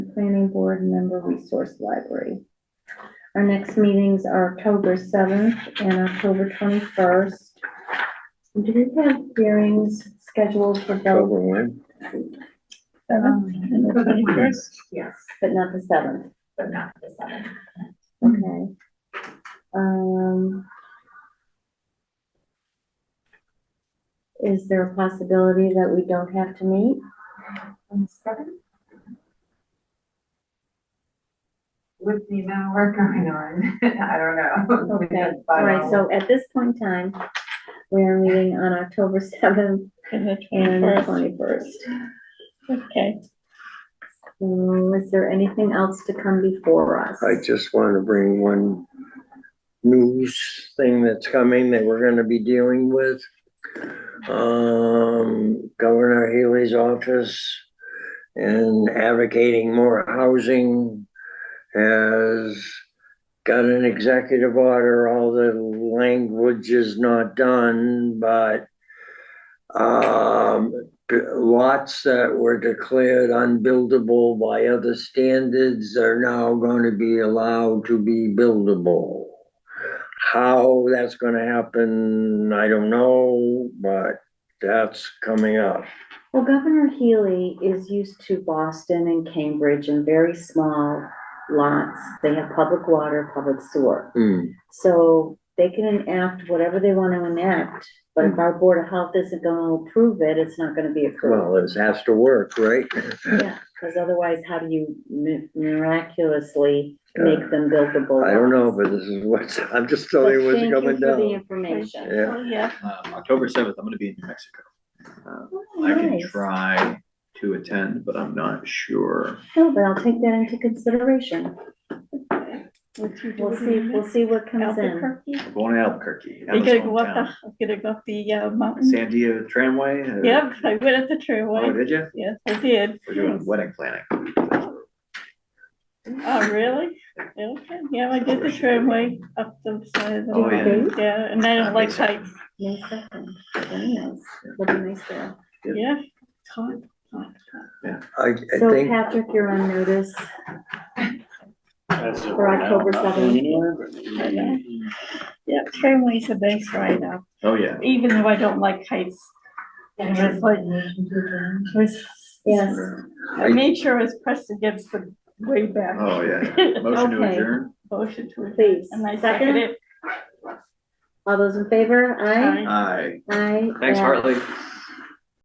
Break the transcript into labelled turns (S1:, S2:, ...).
S1: planning board member resource library. Our next meetings are October seventh and October twenty-first. Do we have hearings scheduled for those?
S2: October one,
S3: Oh,
S1: Yes. But not the seventh,
S3: um, but not the seventh.
S1: okay. Um. Is there a possibility that we don't have to meet?
S3: On the seventh? With the amount of work going on, I don't know.
S1: Okay, all right, so at this point in time, we are meeting on October seventh
S4: And the
S1: and the
S4: 21st.
S1: twenty-first.
S4: Okay,
S1: um, Is there anything else to come before us?
S2: I just want to bring one news thing that's coming that we're gonna be dealing with. Um, Governor Healy's office and advocating more housing has got an executive order, all the language is not done, but um, lots that were declared unbuildable by other standards are now going to be allowed to be buildable. How that's going to happen, I don't know, but that's coming up.
S1: Well, Governor Healy is used to Boston and Cambridge and very small lots. They have public water, public sewer.
S2: Hmm.
S1: So they can enact whatever they want to enact, but if our Board of Health isn't gonna approve it, it's not gonna be approved.
S2: Well, this has to work, right?
S1: Yeah, because otherwise, how do you mi- miraculously make them buildable?
S2: I don't know,
S1: lots?
S2: but this is what's, I'm just
S1: But
S2: telling you what's
S1: thank you
S2: coming
S1: for the
S2: down.
S1: Information.
S2: Yeah.
S4: oh, yeah,
S5: Um, October seventh, I'm gonna be in New Mexico. Uh,
S1: Oh,
S5: I can
S1: nice.
S5: try to attend, but I'm not sure.
S1: No, but I'll take that into consideration.
S4: What you
S1: We'll
S4: doing
S1: see,
S4: in
S1: we'll see what comes in.
S4: Albuquerque.
S5: I'm going to Albuquerque.
S4: You gotta
S5: Emma's
S4: go up
S5: hometown.
S4: the, gotta go up the uh, mountain.
S5: San Diego tramway. uh,
S4: Yep, I went at the
S5: Oh,
S4: tramway.
S5: did you?
S4: Yes, I did.
S5: We're doing wedding planning.
S4: Oh, really? Okay, yeah, I did the tramway up the side of the.
S5: Oh, yeah.
S4: mountain. Yeah, and I don't like heights.
S1: May second, very nice, will be nice there.
S5: Yeah.
S4: Yeah. Hot, hot,
S2: I, I
S1: So
S2: think,
S1: Patrick, you're on notice for October seventh.
S4: hot, yeah. Yeah, tramways are nice right now,
S5: Oh, yeah.
S4: even though I don't like heights. It was like, it was.
S1: Yes,
S4: I made sure it was pressed against the way back.
S5: Oh, yeah. Motion to
S1: Okay.
S5: adjourn.
S4: Motion to adjourn.
S1: please.
S4: And I second
S1: Second,
S4: it.
S1: all those in favor? Aye.
S4: Aye.
S5: Aye.
S1: Aye.
S5: Thanks,
S1: Yeah.
S5: Hartley.